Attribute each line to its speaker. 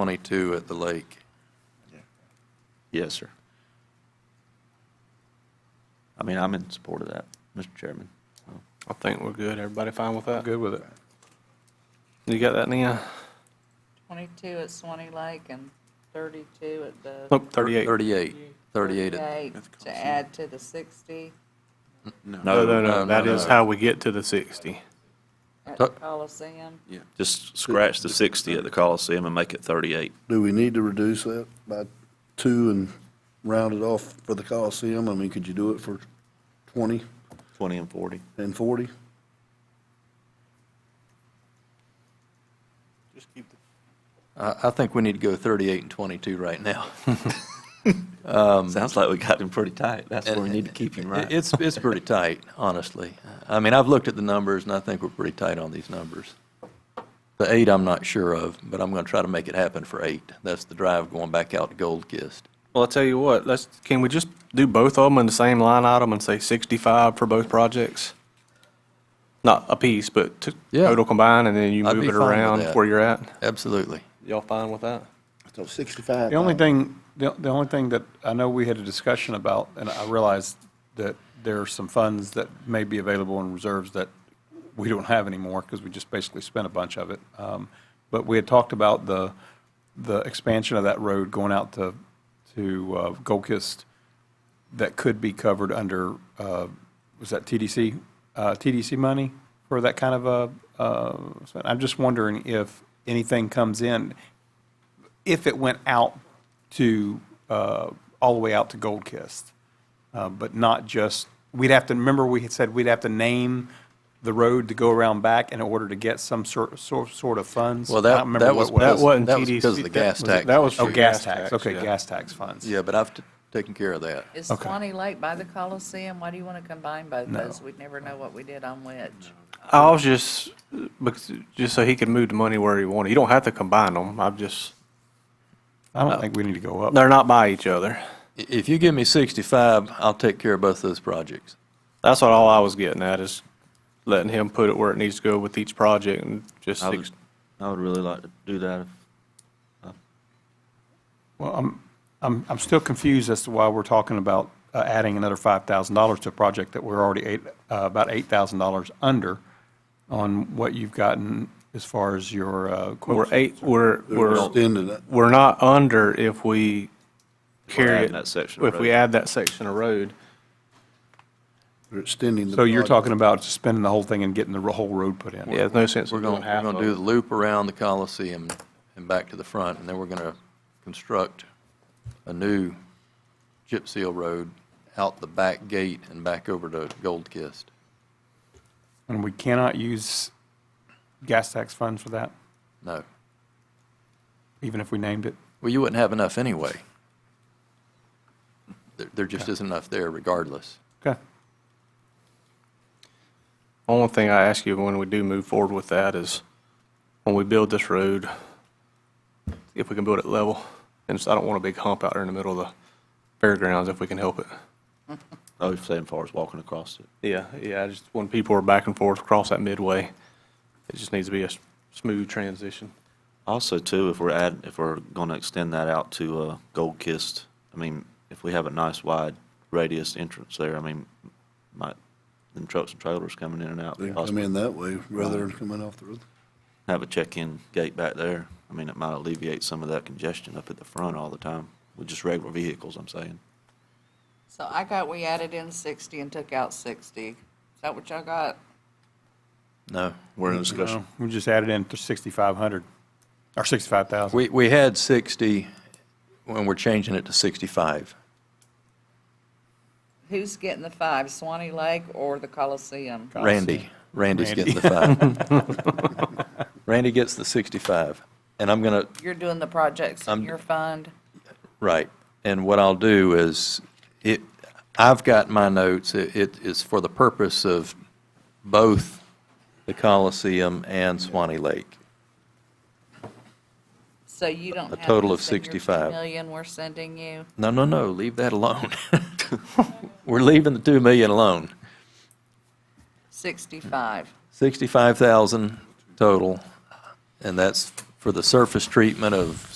Speaker 1: 22 at the lake.
Speaker 2: Yes, sir. I mean, I'm in support of that, Mr. Chairman.
Speaker 3: I think we're good. Everybody fine with that?
Speaker 4: Good with it.
Speaker 3: You got that, Nia?
Speaker 5: 22 at Swanee Lake and 32 at the.
Speaker 3: Nope, 38.
Speaker 1: 38, 38. at-
Speaker 5: 38 To add to the 60
Speaker 3: No, no,
Speaker 1: no,
Speaker 3: no, that
Speaker 1: no,
Speaker 3: is
Speaker 1: no.
Speaker 3: how we get to the 60.
Speaker 5: at
Speaker 1: Uh,
Speaker 5: the Coliseum.
Speaker 2: Just scratch the 60 at the Coliseum and make it 38.
Speaker 6: Do we need to reduce that by two and round it off for the Coliseum? I mean, could you do it for 20
Speaker 2: 20 and 40.
Speaker 6: and 40?
Speaker 1: I, I think we need to go 38 and 22 right now.
Speaker 2: Sounds like we got him pretty tight. That's where we need to keep him,
Speaker 1: It-
Speaker 2: right?
Speaker 1: It's, it's pretty tight, honestly. I mean, I've looked at the numbers, and I think we're pretty tight on these numbers. The eight, I'm not sure of, but I'm going to try to make it happen for eight. That's the drive going back out to Gold Kist.
Speaker 3: Well, I tell you what, let's, can we just do both of them in the same line item and say 65 for both projects? Not a piece, but to-
Speaker 1: Yeah.
Speaker 3: total combined, and then you
Speaker 1: I'd
Speaker 3: move
Speaker 1: be
Speaker 3: it
Speaker 1: fine with
Speaker 3: around
Speaker 1: that.
Speaker 3: where you're at?
Speaker 1: Absolutely.
Speaker 3: Y'all fine with that?
Speaker 6: So 65.
Speaker 4: The only
Speaker 6: um,
Speaker 4: thing, the the only thing that I know we had a discussion about, and I realize that there are some funds that may be available in reserves that we don't have anymore because we just basically spent a bunch of it. Um, But we had talked about the, the expansion of that road going out to, to uh, Goldkist that could be covered under, uh, was that TDC, uh, TDC money for that kind of a, uh, so I'm just wondering if anything comes in, if it went out to, uh, all the way out to Gold Kist, uh, but not just, we'd have to, remember we had said we'd have to name the road to go around back in order to get some sort, sort sort of funds?
Speaker 1: Well,
Speaker 4: I
Speaker 1: that,
Speaker 4: don't remember
Speaker 1: that was.
Speaker 4: what it was.
Speaker 3: that wasn't
Speaker 1: That was
Speaker 3: TDC.
Speaker 1: because of the
Speaker 3: That
Speaker 1: gas
Speaker 3: was it-
Speaker 1: tax.
Speaker 3: that was
Speaker 1: issue.
Speaker 4: Oh, gas tax,
Speaker 3: tax,
Speaker 4: okay,
Speaker 3: yeah.
Speaker 4: gas tax funds.
Speaker 1: Yeah, but I've t- taken care of that.
Speaker 5: Is
Speaker 4: Okay.
Speaker 5: Swanee Lake by the Coliseum? Why do you want to combine both those? We'd never know what we did on which.
Speaker 3: I was just, because, just so he could move the money where he wanted. You don't have to combine them. I'm just,
Speaker 4: I don't think we need to go up.
Speaker 3: they're not by each other.
Speaker 1: I- If you give me 65, I'll take care of both those projects.
Speaker 3: That's what all I was getting at is letting him put it where it needs to go with each project and just.
Speaker 2: I would, I would really like to do that. if-
Speaker 4: Well, I'm, I'm, I'm still confused as to why we're talking about uh, adding another $5,000 to a project that we're already eight, uh, about $8,000 under on what you've gotten as far as your uh,
Speaker 3: We're
Speaker 4: quotes.
Speaker 3: eight, we're, we're,
Speaker 6: Extended it.
Speaker 3: we're not under if we
Speaker 2: we're
Speaker 3: carry
Speaker 2: adding
Speaker 3: it.
Speaker 2: that section of
Speaker 3: If we
Speaker 2: road.
Speaker 3: add that section of road.
Speaker 6: We're extending the.
Speaker 4: So you're
Speaker 6: project.
Speaker 4: talking about spending the whole thing and getting the ro- whole road put in?
Speaker 3: Yeah, there's no sense
Speaker 1: We're
Speaker 3: in
Speaker 1: going,
Speaker 3: doing
Speaker 1: we're
Speaker 3: half
Speaker 1: going
Speaker 3: of
Speaker 1: to do the
Speaker 3: it.
Speaker 1: loop around the Coliseum and back to the front, and then we're going to construct a new chip seal road out the back gate and back over to Gold Kist.
Speaker 4: And we cannot use gas tax funds for that,
Speaker 1: No.
Speaker 4: even if we named it?
Speaker 1: Well, you wouldn't have enough anyway. There, there just isn't enough there regardless.
Speaker 4: Okay.
Speaker 3: Only thing I ask you when we do move forward with that is when we build this road, if we can build it level. And so I don't want a big hump out there in the middle of the fairgrounds if we can help it.
Speaker 2: I was oh, saying as far as walking across it.
Speaker 3: Yeah, yeah, I just, when people are back and forth across that midway, it just needs to be a s- smooth transition.
Speaker 2: Also, too, if we're add, if we're going to extend that out to uh, Gold Kist, I mean, if we have a nice wide radius entrance there, I mean, might, then trucks and trailers coming in and out.
Speaker 6: They come
Speaker 2: possibly.
Speaker 6: in that way rather than coming off the road.
Speaker 2: Have a check-in gate back there. I mean, it might alleviate some of that congestion up at the front all the time with just regular vehicles, I'm saying.
Speaker 5: So I got, we added in 60 and took out 60. Is that what y'all got?
Speaker 1: No.
Speaker 2: We're in discussion.
Speaker 4: No, Uh, We just added in to 6,500, or 65,000.
Speaker 1: We, we had 60, when we're changing it to 65.
Speaker 5: Who's getting the five, Swanee Lake or the Coliseum?
Speaker 1: Randy. Randy's getting the five. Randy gets the 65. And I'm going to,
Speaker 5: You're doing the projects in
Speaker 1: I'm-
Speaker 5: your fund?
Speaker 1: right. And what I'll do is, it, I've got my notes. It it is for the purpose of both the Coliseum and Swanee Lake.
Speaker 5: So you don't
Speaker 1: A
Speaker 5: have
Speaker 1: total of
Speaker 5: this in your
Speaker 1: 65.
Speaker 5: 2 million we're sending you?
Speaker 1: No, no, no, leave that alone. We're leaving the 2 million alone.
Speaker 5: 65.
Speaker 1: 65,000 total, and that's for the surface treatment of